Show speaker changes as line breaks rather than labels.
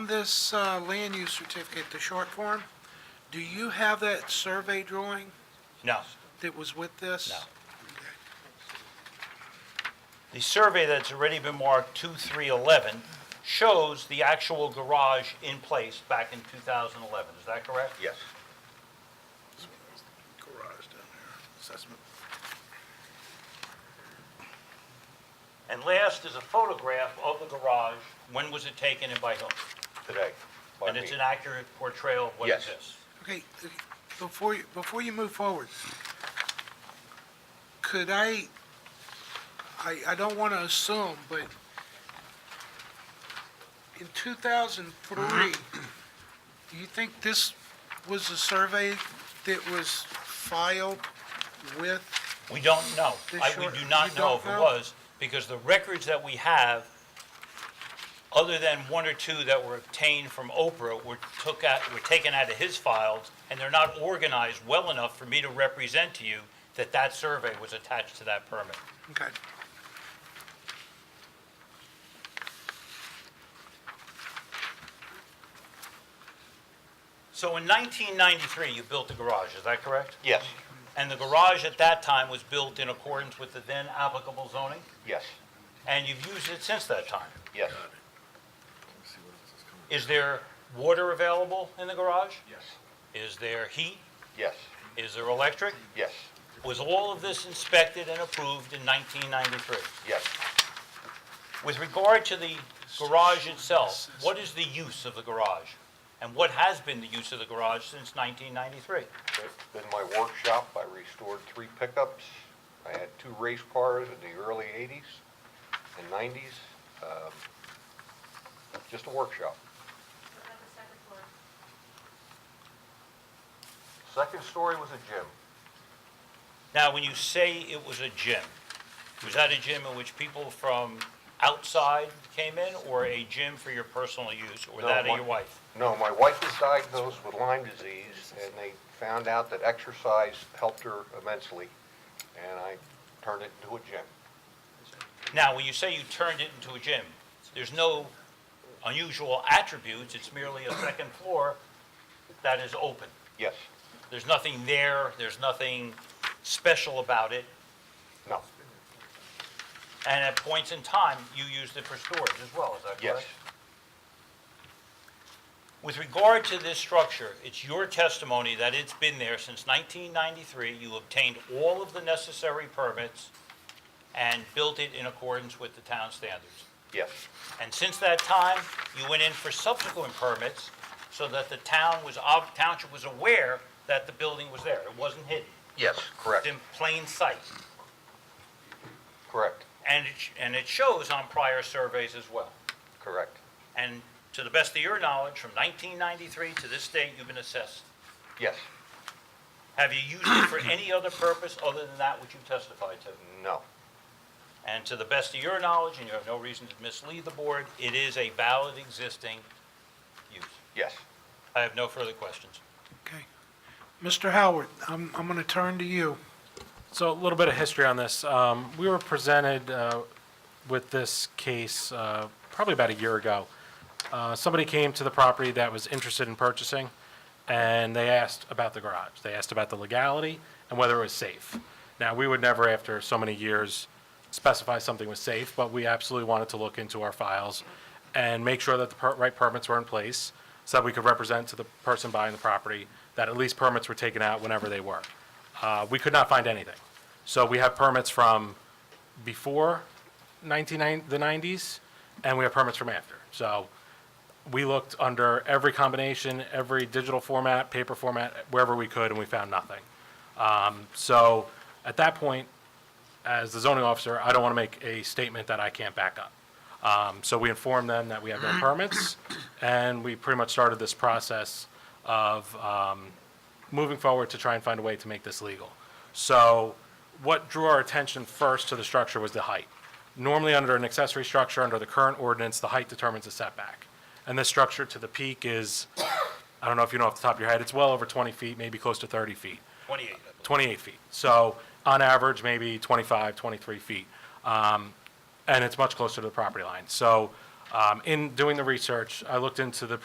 this uh, land use certificate, the short form, do you have that survey drawing
No.
that was with this?
No. The survey that's already been marked 2311 shows the actual garage in place back in 2011. Is that correct?
Yes.
Garage down there, assessment.
And last is a photograph of the garage. When was it taken and by whom?
Today. by
And it's
me.
an accurate portrayal of what
Yes.
exists.
Okay, before, you- before you move forward, could I, I, I don't want to assume, but in 2003, do you think this was a survey that was filed with,
We don't know.
They
I- We
sure-
do
you
not know if
don't
it
know?
was, because the records that we have, other than one or two that were obtained from Oprah, were took out, were taken out of his files, and they're not organized well enough for me to represent to you that that survey was attached to that permit.
okay,
So in 1993, you built the garage, is that correct?
Yes,
And the garage at that time was built in accordance with the then applicable zoning,
yes,
and you've used it since that time.
yes,
Is there water available in the garage?
Yes.
Is there heat?
yes,
Is there electric?
yes,
Was all of this inspected and approved in 1993?
yes.
With regard to the garage itself, what is the use of the garage? And what has been the use of the garage since 1993?
It's been my workshop. I restored three pickups. I had two race cars in the early 80s and 90s. Um, Just a workshop.
What about the second floor?
Second story was a gym.
Now, when you say it was a gym, was that a gym in which people from outside came in, or a gym for your personal use, or
No,
that of
my-
your wife?
No, my wife was diagnosed with Lyme disease, and they found out that exercise helped her immensely, and I turned it into a gym.
Now, when you say you turned it into a gym, there's no unusual attributes, it's merely a second floor that is open.
Yes,
There's nothing there, there's nothing special about it,
no,
and at points in time, you used it for storage as well, is that correct?
yes,
With regard to this structure, it's your testimony that it's been there since 1993, you obtained all of the necessary permits and built it in accordance with the town standards.
yes,
And since that time, you went in for subsequent permits so that the town was, ob- township was aware that the building was there. It wasn't hidden.
yes,
It's
correct,
in plain sight.
correct,
And it, sh- and it shows on prior surveys as well.
correct,
And to the best of your knowledge, from 1993 to this date, you've been assessed.
yes,
Have you used it for any other purpose other than that which you testified to?
no,
And to the best of your knowledge, and you have no reason to mislead the board, it is a valid existing use.
yes.
I have no further questions.
okay. Mr. Howard, I'm, I'm going to turn to you.
So a little bit of history on this. Um, We were presented uh, with this case uh, probably about a year ago. Uh, Somebody came to the property that was interested in purchasing, and they asked about the garage. They asked about the legality and whether it was safe. Now, we would never, after so many years, specify something was safe, but we absolutely wanted to look into our files and make sure that the per- right permits were in place so that we could represent to the person buying the property that at least permits were taken out whenever they were. Uh, we could not find anything. So we have permits from before 1990, the 90s, and we have permits from after. So we looked under every combination, every digital format, paper format, wherever we could, and we found nothing. Um, So at that point, as the zoning officer, I don't want to make a statement that I can't back up. Um, So we informed them that we have no permits, and we pretty much started this process of um, moving forward to try and find a way to make this legal. So what drew our attention first to the structure was the height. Normally, under an accessory structure, under the current ordinance, the height determines the setback. And this structure to the peak is, I don't know if you know off the top of your head, it's well over 20 feet, maybe close to 30 feet.
28, I believe.
28 feet. So on average, maybe 25, 23 feet. Um, And it's much closer to the property line. So um, in doing the research, I looked into the